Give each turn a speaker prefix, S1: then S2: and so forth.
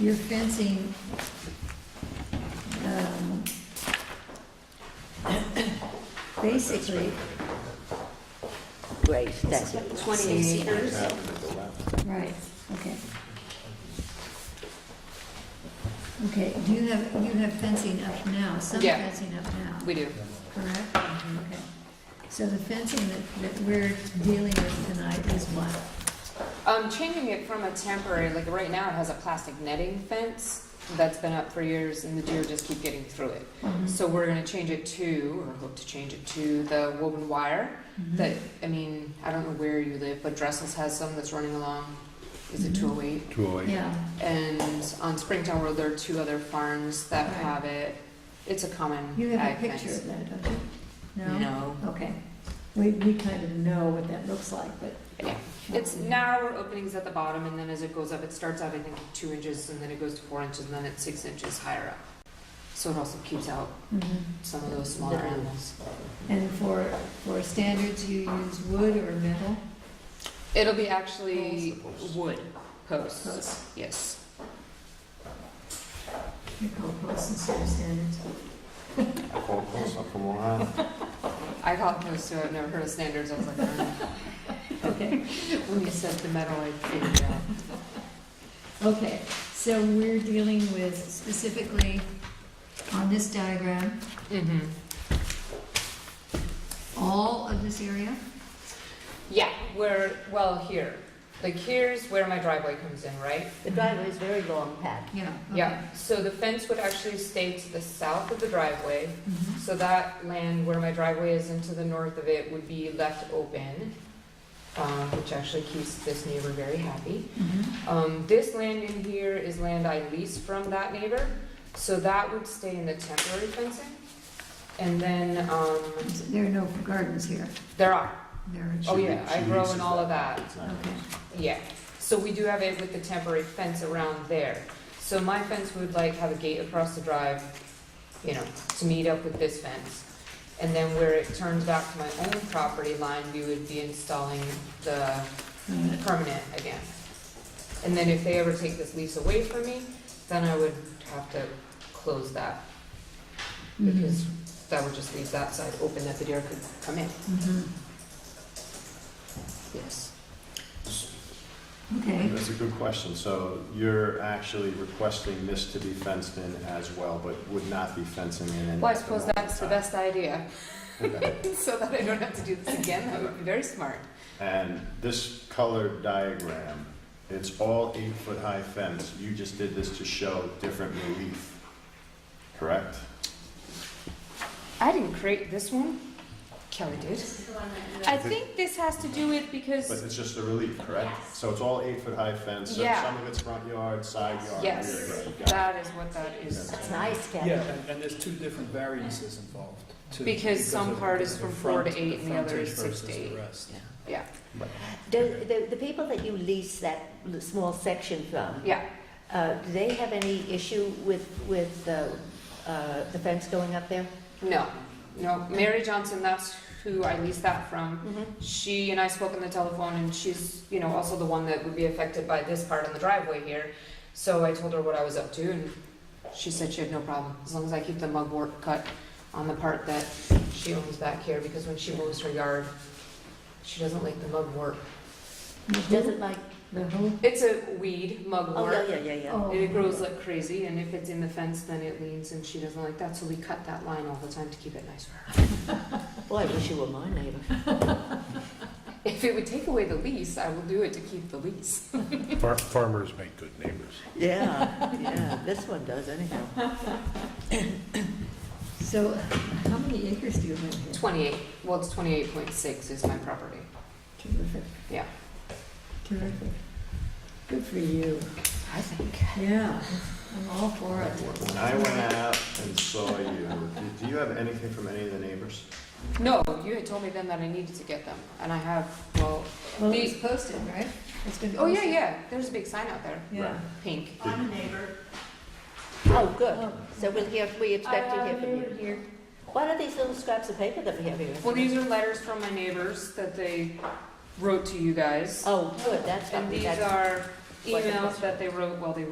S1: your Um, fencing, um, basically,
S2: Right, that's it.
S3: Twenty acres.
S1: right, okay. Okay, do you have, you have fencing up now, some
S3: Yeah.
S1: fencing up now?
S3: We do.
S1: Correct? Okay. So the fencing that, that we're dealing with tonight is what?
S3: Um, changing it from a temporary, like right now it has a plastic netting fence that's been up for years and the deer just keep getting through it. So we're gonna change it to, or hope to change it to the woven wire that, I mean, I don't know where you live, but Dressel's has some that's running along. Is it
S1: Mhm.
S3: two oh eight?
S1: Yeah,
S3: And on Springtown Road, there are two other farms that
S1: Right.
S3: have it. It's a common
S1: you have
S3: ag
S1: a picture
S3: fence.
S1: of that, don't you?
S3: No.
S1: Okay. We, we kind of know what that looks like, but.
S3: Yeah. It's narrower openings at the bottom, and then as it goes up, it starts out, I think, at two inches, and then it goes to four inches, and then it's six inches higher up. So it also keeps out
S1: Mhm.
S3: some of those smaller
S2: Yeah.
S3: animals.
S1: And for, for standards, you use wood or metal?
S3: It'll be actually wood posts,
S1: Posts.
S3: yes.
S1: You call posts instead of standards?
S3: I call it posts, so I've never heard of standards, I was like, "Oh,
S1: Okay,
S3: no." when you said the metal, I figured it out.
S1: okay. So we're dealing with specifically on this diagram,
S3: Mm-hmm.
S1: all of this area?
S3: Yeah, where, well, here, like here's where my driveway comes in, right?
S2: The driveway is very long, Pat.
S1: Yeah. okay.
S3: Yeah, so the fence would actually stay to the south of the driveway,
S1: Mhm.
S3: So that land where my driveway is into the north of it would be left open, um, which actually keeps this neighbor very happy.
S1: Mhm.
S3: Um, This land in here is land I lease from that neighbor, so that would stay in the temporary fencing. And then, um,
S1: There are no gardens here.
S3: there are,
S1: There are,
S3: oh yeah, I grow in all of that,
S1: okay.
S3: yeah. So we do have it with the temporary fence around there. So my fence would like have a gate across the drive, you know, to meet up with this fence. And then where it turns back to my own property line, we would be installing the
S1: Uh,
S3: permanent again. And then if they ever take this lease away from me, then I would have to close that because
S1: mhm,
S3: that would just leave that side open that the deer could come in.
S1: mhm.
S3: Yes.
S1: Mm-hmm. Okay,
S4: That's a good question. So you're actually requesting this to be fenced in as well, but would not be fencing in. at
S3: Well, I
S4: the
S3: suppose
S4: moment
S3: that's the
S4: in
S3: best idea,
S4: time. Okay.
S3: so that I don't have to do this again. That would be very smart.
S4: And this colored diagram, it's all eight-foot-high fence. You just did this to show different relief, correct?
S3: I didn't create this one. Kelly did. I think this has to do with
S4: But
S3: because,
S4: it's just a relief, correct? So it's all eight-foot-high fence, so
S3: Yeah.
S4: some of it's front yard, side yard, rear
S3: yes,
S4: yard. Got it.
S3: that is what that is.
S2: That's nice,
S5: Yeah,
S2: Kathy.
S5: and- and there's two different variances involved, too.
S3: Because some
S5: of
S3: part is
S5: the
S3: from four to
S5: front-
S3: eight and the other
S5: frontage
S3: is six to
S5: versus the
S3: eight.
S5: rest.
S3: Yeah,
S2: Do, the, the people that you lease that l- small section from,
S3: yeah.
S2: uh, do they have any issue with, with, uh, uh, the fence going up there?
S3: No, no. Mary Johnson, that's who I leased that from.
S2: Mm-hmm.
S3: She and I spoke on the telephone, and she's, you know, also the one that would be affected by this part in the driveway here. So I told her what I was up to, and she said she had no problem, as long as I keep the mugwort cut on the part that she owns back here, because when she mows her yard, she doesn't like the mugwort.
S2: Doesn't like,
S1: the whole,
S3: It's a weed,
S2: oh,
S3: mugwort.
S2: yeah, yeah, yeah, yeah.
S1: oh.
S3: It grows like crazy, and if it's in the fence, then it leans, and she doesn't like that, so we cut that line all the time to keep it nice for her.
S2: Boy, I wish you were my neighbor.
S3: If it would take away the lease, I will do it to keep the lease.
S6: Far- Farmers make good neighbors.
S2: Yeah, yeah, this one does anyhow.
S1: So how many acres do you have here?
S3: Twenty-eight, well, it's twenty-eight point six is my property.
S1: Terrific.
S3: Yeah.
S1: Terrific. Good for you.
S3: I think.
S1: Yeah, I'm all for it.
S4: When I went out and saw you, do you have anything from any of the neighbors?
S3: No, you had told me then that I needed to get them, and I have, well,
S1: Well,
S3: The-
S1: it's posted, right? It's been
S3: oh, yeah,
S1: posted.
S3: yeah, there's a big sign out there,
S1: Yeah.
S3: pink.
S2: Oh, good.
S1: Oh.
S2: So we'll hear, Uh, we expect to hear from you. What are these little scraps of paper that we have here?
S3: Well, these are letters from my neighbors that they wrote to you guys,
S2: Oh, good, that's what
S3: and
S2: we
S3: these
S2: got.
S3: are
S2: What the-
S3: emails that they wrote while they